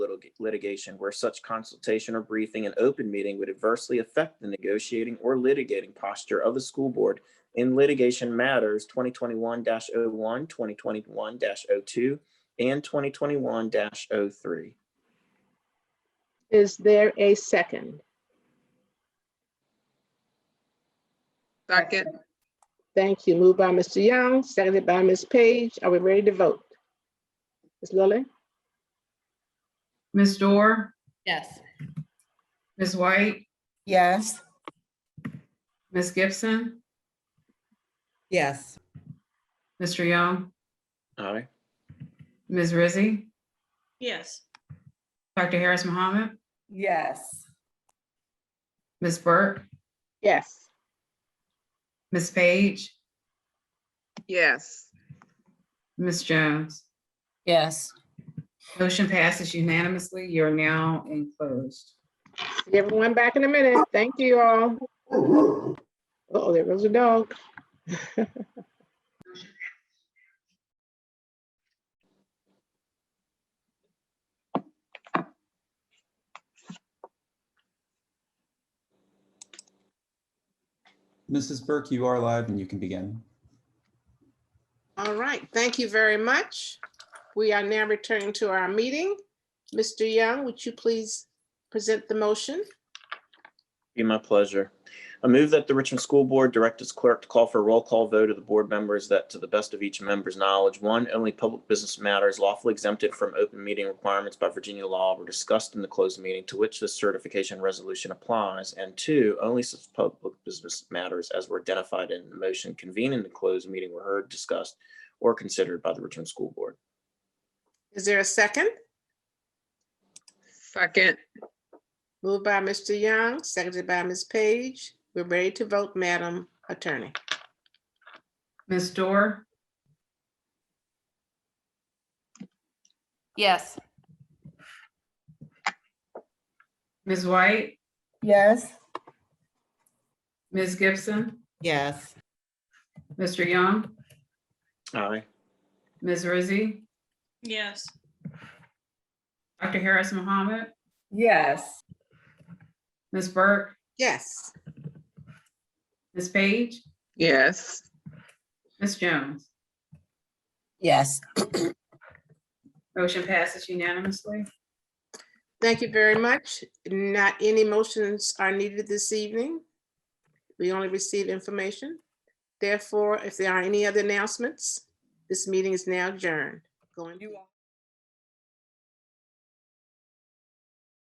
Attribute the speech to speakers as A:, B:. A: litigation where such consultation or briefing in open meeting would adversely affect the negotiating or litigating posture of the school board in litigation matters twenty twenty-one oh one 2021-02, and twenty twenty-one oh 3
B: Is there a second?
C: Second,
B: Thank you. Moved by Mr. Young, seconded by Ms. Page. Are we ready to vote? Ms. Lilly?
D: Ms. Dorr,
E: Yes.
D: Ms. White,
F: Yes.
D: Ms. Gibson,
F: Yes.
D: Mr. Young,
A: Aye.
D: Ms. Rizzi,
E: Yes.
D: Dr. Harris Mohammed,
F: Yes.
D: Ms. Burke,
B: Yes.
D: Ms. Page,
C: yes.
D: Ms. Jones.
F: Yes.
D: Motion passes unanimously. You're now enclosed.
B: See everyone back in a minute. Thank you all. Oh, there goes a dog.
G: Mrs. Burke, you are live and you can begin.
B: All right, thank you very much. We are now returning to our meeting. Mr. Young, would you please present the motion?
A: Be my pleasure. I move that the Richmond School Board direct its clerk to call for a roll call vote of the board members that, to the best of each member's knowledge, one, only public business matters lawfully exempted from open meeting requirements by Virginia law were discussed in the closed meeting to which this certification resolution applies, and two, only such public business matters as were identified in the motion convening the closed meeting were heard, discussed, or considered by the Richmond School Board.
B: Is there a second?
C: Second,
B: Moved by Mr. Young, seconded by Ms. Page. We're ready to vote, Madam Attorney.
D: Ms. Dorr,
E: Yes.
D: Ms. White,
F: Yes.
D: Ms. Gibson,
F: Yes.
D: Mr. Young,
A: Aye.
D: Ms. Rizzi,
E: Yes.
D: Dr. Harris Mohammed,
F: Yes.
D: Ms. Burke,
B: Yes,
D: Ms. Page,
C: yes.
D: Ms. Jones.
F: Yes.
D: Motion passes unanimously.
B: thank you very much. Not any motions are needed this evening. We only received information. Therefore, if there are any other announcements, this meeting is now adjourned. Go in
F: You
B: peace.
F: all-